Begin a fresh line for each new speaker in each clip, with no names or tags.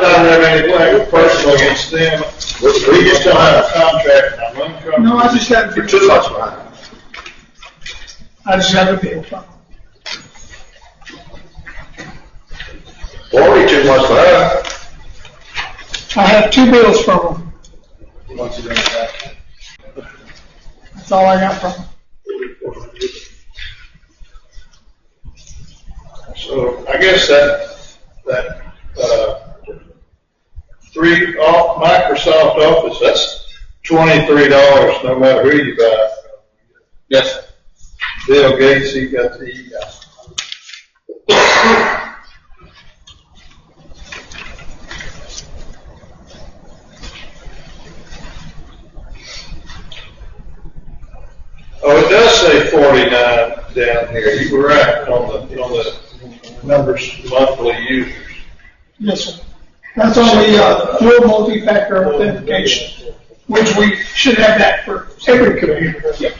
take away personal against them. We we just don't have a contract, I'm uncomfortable.
No, I just haven't,
You're too much behind.
I just haven't been.
Or we too much behind.
I have two bills from them. That's all I got from them.
So I guess that, that, uh, three, all, Microsoft Office, that's twenty-three dollars, no matter who you buy.
Yes.
Bill Gates, he got the, uh, Oh, it does say forty-nine down here, you were right on the, on the numbers, monthly users.
Yes, sir. That's on the, uh, dual multi-factor authentication, which we should have that for every computer.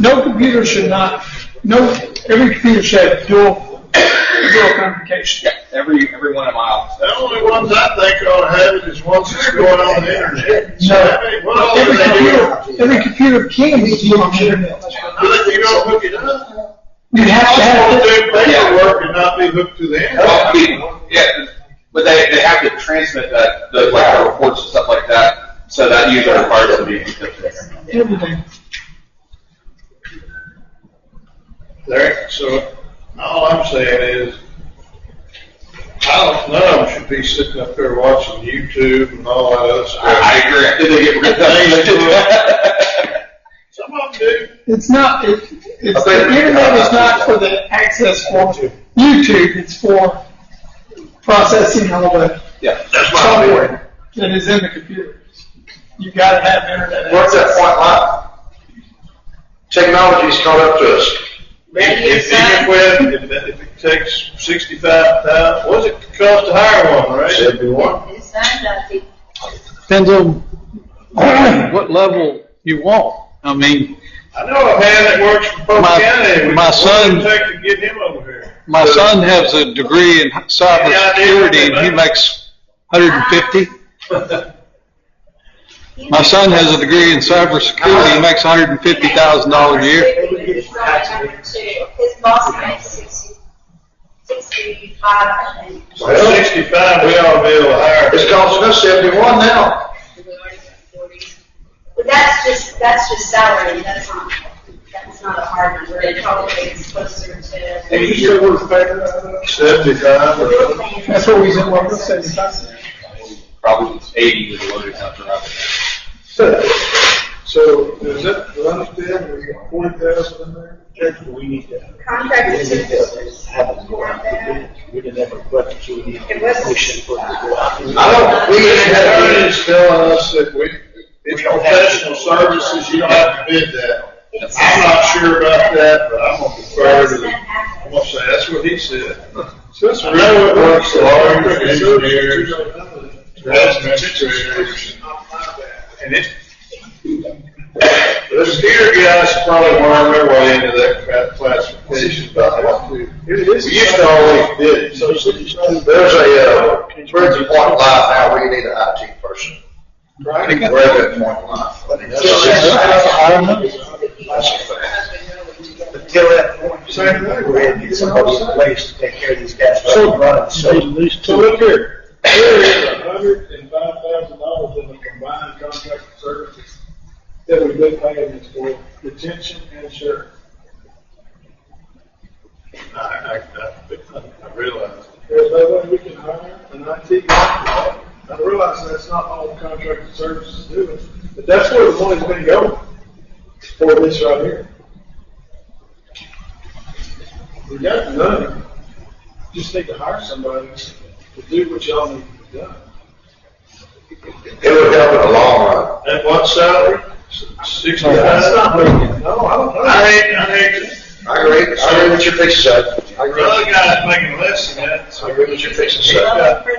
No computer should not, no, every computer should have dual, dual authentication.
Every, every one of my offices.
The only ones I think ought to have it is ones that's going on the internet. So, I mean, what all do
Every
they do?
computer, every computer can be dual on the internet.
Really, You don't hook it up?
You have to
People
have it.
do paperwork and not be hooked to the internet.
Well, I mean, Oh, yeah, but they, they have to transmit that, the, like, the reports and stuff like that, so that usually requires them to be encrypted.
everything.
There, so, all I'm saying is, I don't, none of them should be sitting up there watching YouTube and all that other
I,
stuff.
I agree, I think they get rid of
Some of them do.
It's not, it, it's,
I
the
think-
internet is not for the access for YouTube, it's for processing all the
Yeah.
That's my opinion.
software that is in the computer. You gotta have internet
Where's that
access.
point line? Technology's caught up to us.
If, if, even when, if, that- if it takes sixty-five thousand, what's it cost to hire one, right?
Seventy-one.
It sounds like it.
Depends on what level you want. I mean,
I know a man that works for Polk
My-
County. We-
my
what's it
son-
Take to get him over here.
my son has a degree in cybersecurity and he makes 150. My son has a degree in cybersecurity, he makes $150,000 a year.
His boss makes sixty, sixty-five, I think.
Well, sixty-five, we ought to be able to hire.
It's costing us seventy-one now.
But that's just, that's just salary, that's not, that's not a hard number, it probably is closer to.
Maybe you're-
Seventy-five or something.
That's what we said, what we said, that's-
Probably eighty with the loaded number up.
So, does that, do I understand, we got forty thousand in there?
We need to.
Contracted
We need
services.
to have a more active, we didn't have a budget, so we need
It was-
to push it for.
I don't, we didn't have any.
Attorney's telling us that we, it's professional services, you don't have to bid that. I'm not sure about that, but I'm gonna defer to the, I'm gonna say, that's what he said. So it's railroad works, lawyers, engineers, administrators. And it, those dear guys probably weren't their way into that cla- classification about what to. We used to always bid, so
There's a, uh, where's the point line now? We need an IT person. Right. We're at that point line. That's a fact.
Until that point,
Same thing.
we had to get somebody in place to take care of these guys.
So-
Running, so.
So look here, there is a hundred and five thousand dollars in the combined contract services that we've been paying this for, detention and insurance. I, I, I realize. There's no way we can hire an IT guy. I realize that's not all contracted services do, but that's where the money's gonna go for this right here. We got the money just need to hire somebody to do what y'all need to do.
It would help in the long run.
At what salary? Sixty
That's
thousand?
not working.
No, I don't. I hate, I hate,
I agree, I agree with your picture, Seth. I
the
agree.
other guy's making less than that, so.
I agree with your picture, Seth.
Well, for the